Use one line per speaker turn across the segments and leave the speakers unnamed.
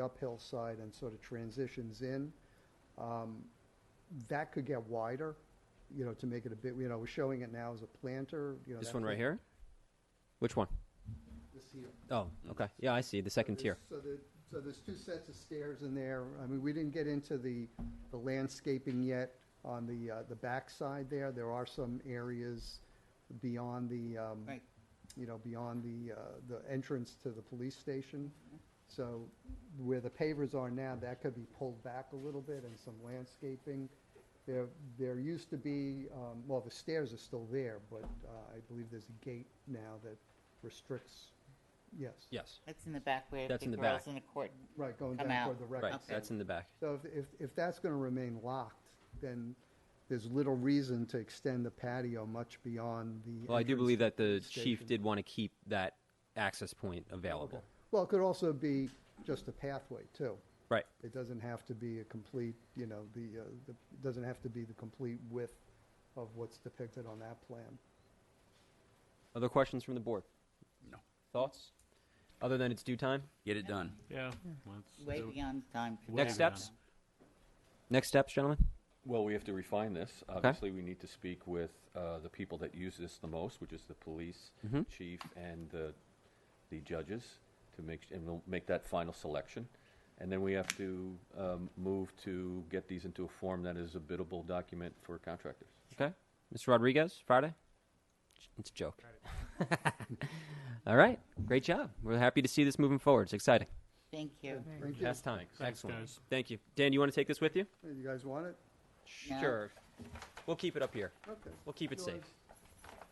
uphill side and sort of transitions in. Um, That could get wider, you know, to make it a bit, you know, we're showing it now as a planter, you know.
This
that
one right
could-
here? Which one?
This here.
Oh, okay. Yeah, I see, the second
So
tier.
there's- So the, so there's two sets of stairs in there. I mean, we didn't get into the, the landscaping yet on the, uh, the backside there. There are some areas beyond the, um,
Right.
you know, beyond the, uh, the entrance to the police station. So where the pavers are now, that could be pulled back a little bit and some landscaping. There, there used to be, um, well, the stairs are still there, but, uh, I believe there's a gate now that restricts, yes.
Yes.
That's in the back where the
That's in the
girls
back.
in the court.
Right, going
Come
down
out.
toward the
Right,
record.
Okay.
that's in the back.
So if, if, if that's gonna remain locked, then there's little reason to extend the patio much beyond the.
Well, I do
entrance
believe
to
that the
police
chief
station.
did want to keep that access point available.
Well, it could also be just a pathway too.
Right.
It doesn't have to be a complete, you know, the, uh, the, it doesn't have to be the complete width of what's depicted on that plan.
Other questions from the board?
No.
Thoughts? Other than it's due time?
Get it done.
Yeah. let's
Way
do it.
beyond time. for
Way
Next
beyond.
steps? Next steps, gentlemen?
Well, we have to refine this. Obviously, we need to speak with uh, the people that use this the most, which is the police
Mhm.
chief and the, the judges, to make, and we'll make that final selection. And then we have to um, move to get these into a form that is a biddable document for contractors.
Okay. Mr. Rodriguez, Friday? It's a joke. All right, great job. We're happy to see this moving forward. It's exciting.
Thank you.
Thank you.
Past time.
Thanks,
Excellent.
guys.
Thank you. Dan, you want to take this with you?
You guys want it?
No.
Sure. We'll keep it up here.
Okay.
We'll keep it safe.
George,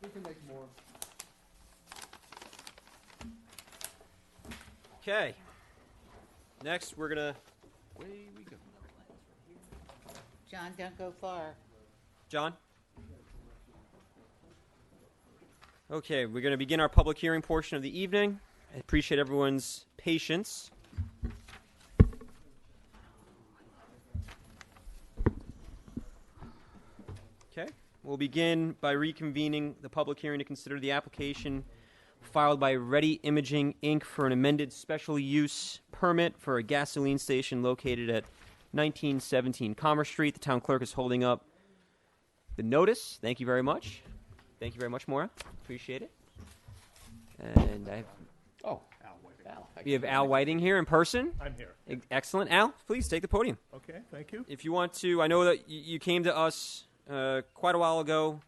We can make more.
Okay. Next, we're gonna.
John, don't go far.
John? Okay, we're going to begin our public hearing portion of the evening. I appreciate everyone's patience. Okay, we'll begin by reconvening the public hearing to consider the application filed by Ready Imaging Inc. for an amended special use permit for a gasoline station located at 1917 Commerce Street. The town clerk is holding up the notice. Thank you very much. Thank you very much, Maura. Appreciate it. And I have,
Oh.
we have Al Whiting here in person.
I'm here.
Ex- Excellent. Al, please take the podium.
Okay, thank you.
If you want to, I know that y- you came to us uh, quite a while ago,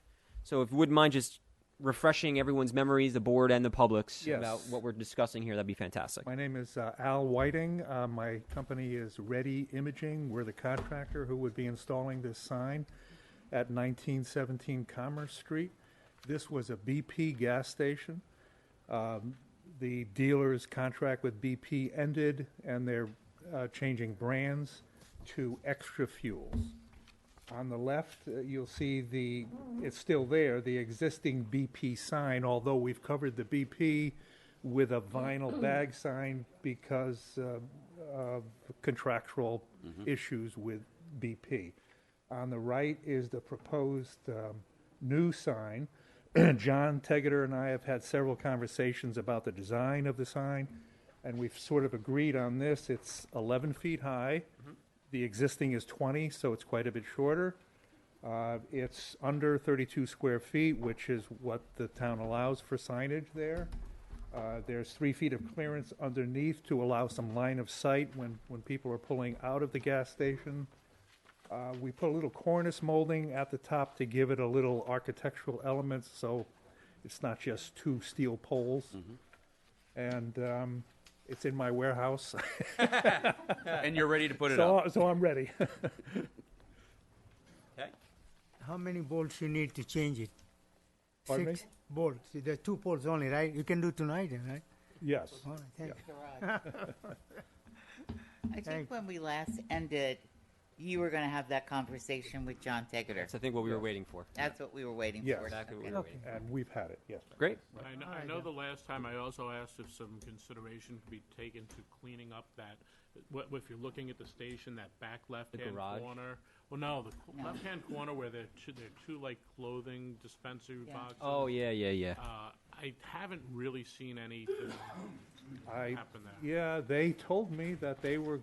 so if you wouldn't mind just refreshing everyone's memories, the board and the public's,
Yes.
about what we're discussing here, that'd be fantastic.
My name is uh, Al Whiting. Uh, My company is Ready Imaging. We're the contractor who would be installing this sign at 1917 Commerce Street. This was a BP gas station. Um, The dealer's contract with BP ended, and they're uh, changing brands to Extra Fuels. On the left, uh, you'll see the, it's still there, the existing BP sign, although we've covered the BP with a vinyl bag sign because uh, of contractual issues with BP. On the right is the proposed um, new sign. John Tegeter and I have had several conversations about the design of the sign, and we've sort of agreed on this. It's 11 feet high. The existing is 20, so it's quite a bit shorter. Uh, It's under 32 square feet, which is what the town allows for signage there. Uh, There's three feet of clearance underneath to allow some line of sight when, when people are pulling out of the gas station. Uh, We put a little cornice molding at the top to give it a little architectural element, so it's not just two steel poles.
Mm-hmm.
And um, it's in my warehouse.
And you're ready to put it
So,
up.
I- so I'm ready.
How many bolts you need to change it?
Pardon me?
Six bolts. There are two bolts only, right? You can do tonight, then, right?
yes.
All right, thank you.
Garage. I
Thank-
think when we last ended, You were gonna have that conversation with John Tegeter.
That's, I think, what we were waiting for.
That's what we were waiting
Yes.
for.
Exactly what we
Okay.
were waiting for.
And we've had it, yes.
Great.
I know, I know the last time I also asked if some consideration could be taken to cleaning up that, what, if you're looking at the station, that back left-hand
garage?
corner. Well, no, the co- left-hand corner where there are two, there are two like clothing dispensary
Yeah.
boxes.
Oh, yeah, yeah, yeah.
Uh, I haven't really seen anything
I,
happen there.
yeah, they told me that they were